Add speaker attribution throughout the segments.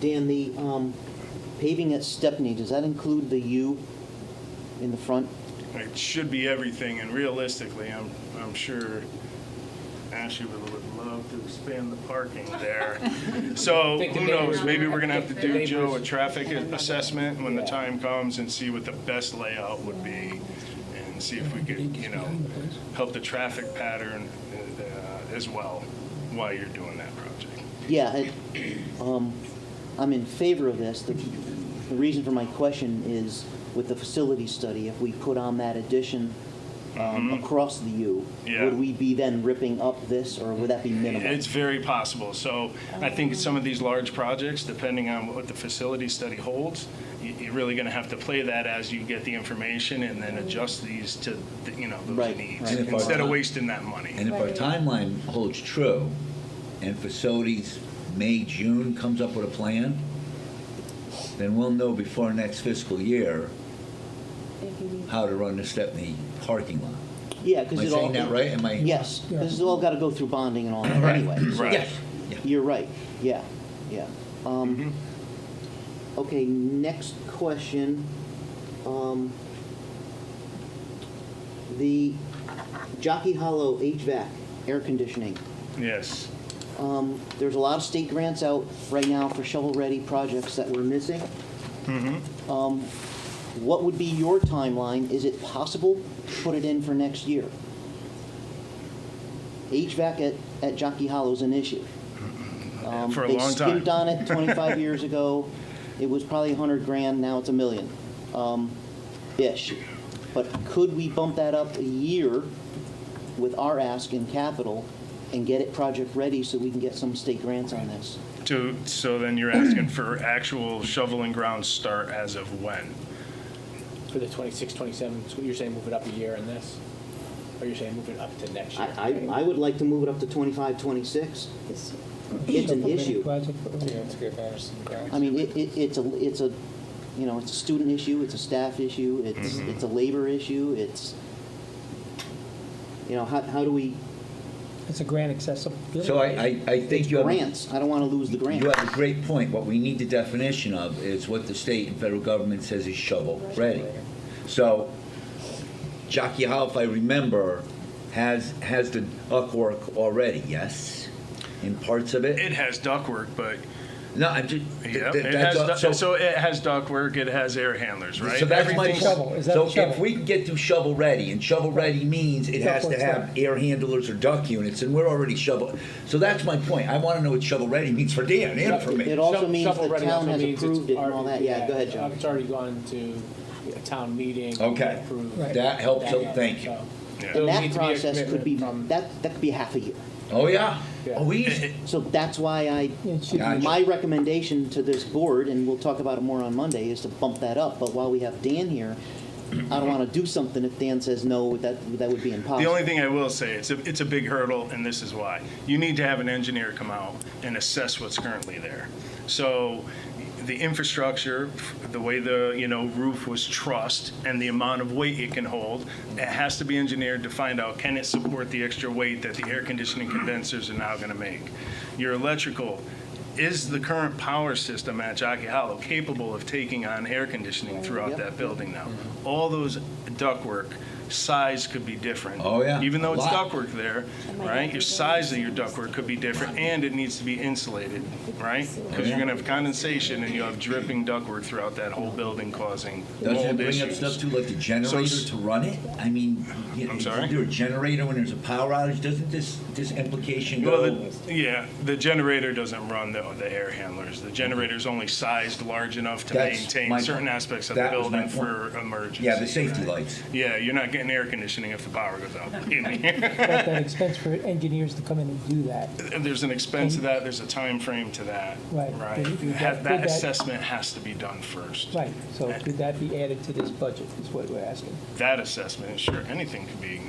Speaker 1: Dan, the um, paving at Stepney, does that include the U in the front?
Speaker 2: It should be everything, and realistically, I'm, I'm sure Ashley would, would love to expand the parking there. So,
Speaker 3: Take the
Speaker 2: who knows,
Speaker 3: neighbors.
Speaker 2: maybe we're gonna have to do,
Speaker 3: Neighbors.
Speaker 2: Joe, a traffic assessment when the time comes and see what the best layout would be, and see if we could, you know, help the traffic pattern uh, as well while you're doing that project.
Speaker 1: Yeah, it- um, I'm in favor of this. The the reason for my question is with the facility study, if we put on that addition um, across the U,
Speaker 2: Yeah.
Speaker 1: would we be then ripping up this, or would that be minimal?
Speaker 2: It's very possible. So I think some of these large projects, depending on what the facility study holds, you- you're really going to have to play that as you get the information and then adjust these to, the- you know, those
Speaker 1: Right,
Speaker 2: needs,
Speaker 1: right.
Speaker 4: And if our
Speaker 2: instead of
Speaker 4: time-
Speaker 2: wasting that money.
Speaker 4: And if our timeline holds true, and facilities May, June comes up with a plan, then we'll know before next fiscal year how to run the Stepney parking lot.
Speaker 1: Yeah,
Speaker 4: Am
Speaker 1: because
Speaker 4: I
Speaker 1: it all.
Speaker 4: saying that right? Am I?
Speaker 1: Yes, this has all got to go through bonding and all that anyway. so-
Speaker 2: Right.
Speaker 4: Yes. Yeah.
Speaker 1: You're right, yeah, yeah. Um, Okay, next question. Um, The Jockey Hollow HVAC, air conditioning.
Speaker 2: Yes.
Speaker 1: Um, There's a lot of state grants out right now for shovel-ready projects that we're missing. Um, What would be your timeline? Is it possible to put it in for next year? HVAC at, at Jockey Hollow's an issue. Um,
Speaker 2: Mm-hmm. For a long
Speaker 1: They
Speaker 2: time.
Speaker 1: skimped on it 25 years ago. It was probably 100 grand, now it's a million, um, ish. But could we bump that up a year with our ask in capital and get it project-ready so we can get some state grants on this?
Speaker 2: To, so then you're asking for actual shovel and ground start as of when?
Speaker 3: For the 26, 27, so you're saying move it up a year in this? Or you're saying move it up to next year?
Speaker 1: I, I, I would like to move it up to 25, 26. It's an issue. I mean, it, it, it's a, it's a, you know, it's a student issue, it's a staff issue, it's,
Speaker 2: Mm-hmm.
Speaker 1: it's a labor issue, it's, you know, how, how do we,
Speaker 5: It's a grant accessibility.
Speaker 4: So I, I, I think
Speaker 1: it's
Speaker 4: you have.
Speaker 1: grants, I don't want to lose the grant.
Speaker 4: You have a great point. What we need the definition of is what the state and federal government says is shovel-ready. So Jockey Hollow, if I remember, has, has the ductwork already, yes? In parts of
Speaker 2: It
Speaker 4: it?
Speaker 2: has ductwork, but,
Speaker 4: No, I'm just. th-
Speaker 2: yeah,
Speaker 4: th-
Speaker 2: it
Speaker 4: that's all-
Speaker 2: has,
Speaker 4: so-
Speaker 2: du- so it has ductwork, it has air handlers, right?
Speaker 4: So that's my
Speaker 2: Everything's-
Speaker 5: Shovel,
Speaker 4: point.
Speaker 5: is that
Speaker 4: So
Speaker 5: the shovel?
Speaker 4: if we can get to shovel-ready, and shovel-ready means it has to
Speaker 5: Ductwork's
Speaker 4: have air handlers or duct units, and we're already shovel. So that's my point. I want to know what shovel-ready means for Dan and for me.
Speaker 1: It also
Speaker 3: Shovel-
Speaker 1: means the
Speaker 3: shovel ready
Speaker 1: town
Speaker 3: also
Speaker 1: has
Speaker 3: means it's
Speaker 1: approved it and all
Speaker 3: already-
Speaker 1: that. Yeah, go ahead, John.
Speaker 3: It's already gone to a town meeting.
Speaker 4: Okay.
Speaker 3: approved.
Speaker 5: Right.
Speaker 4: That helps
Speaker 3: That-
Speaker 4: out. Thank you.
Speaker 3: so
Speaker 2: Yeah.
Speaker 3: there
Speaker 1: And
Speaker 3: will
Speaker 1: that
Speaker 3: need to be a
Speaker 1: process could be,
Speaker 3: commitment
Speaker 1: that, that could be half a year.
Speaker 4: Oh, yeah.
Speaker 3: Yeah.
Speaker 4: Oh, we used,
Speaker 1: So that's why I,
Speaker 5: It should be-
Speaker 4: Gotcha.
Speaker 1: my recommendation to this board, and we'll talk about it more on Monday, is to bump that up. But while we have Dan here, I don't want to do something if Dan says no, that, that would be
Speaker 2: The
Speaker 1: impossible.
Speaker 2: only thing I will say, it's a, it's a big hurdle, and this is why. You need to have an engineer come out and assess what's currently there. So the infrastructure, the way the, you know, roof was trussed and the amount of weight it can hold, it has to be engineered to find out, can it support the extra weight that the air conditioning condensers are now gonna make? Your electrical, is the current power system at Jockey Hollow capable of taking on air conditioning throughout
Speaker 1: Yep.
Speaker 2: that building now? All those ductwork, size could be different.
Speaker 4: Oh, yeah.
Speaker 2: Even though
Speaker 4: A
Speaker 2: it's
Speaker 4: lot.
Speaker 2: ductwork there, right? Your size of your ductwork could be different, and it needs to be insulated, right? Because you're gonna have condensation, and you have dripping ductwork throughout that whole building causing
Speaker 4: Doesn't it
Speaker 2: mold
Speaker 4: bring up stuff
Speaker 2: issues.
Speaker 4: too, like the
Speaker 2: s-
Speaker 4: generator to run it? I mean, you know,
Speaker 2: I'm
Speaker 4: is
Speaker 2: sorry?
Speaker 4: there a generator when there's a power outage? Doesn't this, this implication
Speaker 2: Well,
Speaker 4: go?
Speaker 2: the, yeah, the generator doesn't run the, the air handlers. The generator's only sized large enough to
Speaker 4: That's
Speaker 2: maintain
Speaker 4: my-
Speaker 2: certain aspects of the
Speaker 4: that was my
Speaker 2: building
Speaker 4: point.
Speaker 2: for emergency.
Speaker 4: Yeah, the safety
Speaker 2: right?
Speaker 4: lights.
Speaker 2: Yeah, you're not getting air conditioning if the power goes out. believe me.
Speaker 5: at that expense for engineers to come in and do that.
Speaker 2: There's an expense to that, there's a time frame to that.
Speaker 5: Right. Did- did
Speaker 2: Ha-
Speaker 5: that-
Speaker 2: That
Speaker 5: did that-
Speaker 2: assessment has to be done first.
Speaker 5: Right, so could that be added to this budget, is what we're asking?
Speaker 2: That assessment, sure, anything could be.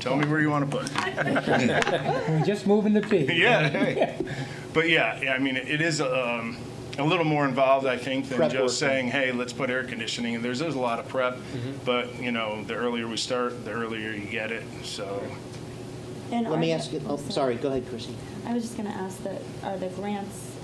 Speaker 2: Tell me where you want to put. it.
Speaker 5: We're just moving the fee.
Speaker 2: Yeah, hey. But yeah, yeah, I mean, it is um, a little more involved, I think, than
Speaker 1: Prep work.
Speaker 2: just saying, hey, let's put air conditioning. And there's, there's a lot of prep,
Speaker 1: Mm-hmm.
Speaker 2: but, you know, the earlier we start, the earlier you get it, so.
Speaker 1: Let me ask, you- oh, sorry, go ahead, Chrissy.
Speaker 6: I was just going to ask that, are the grants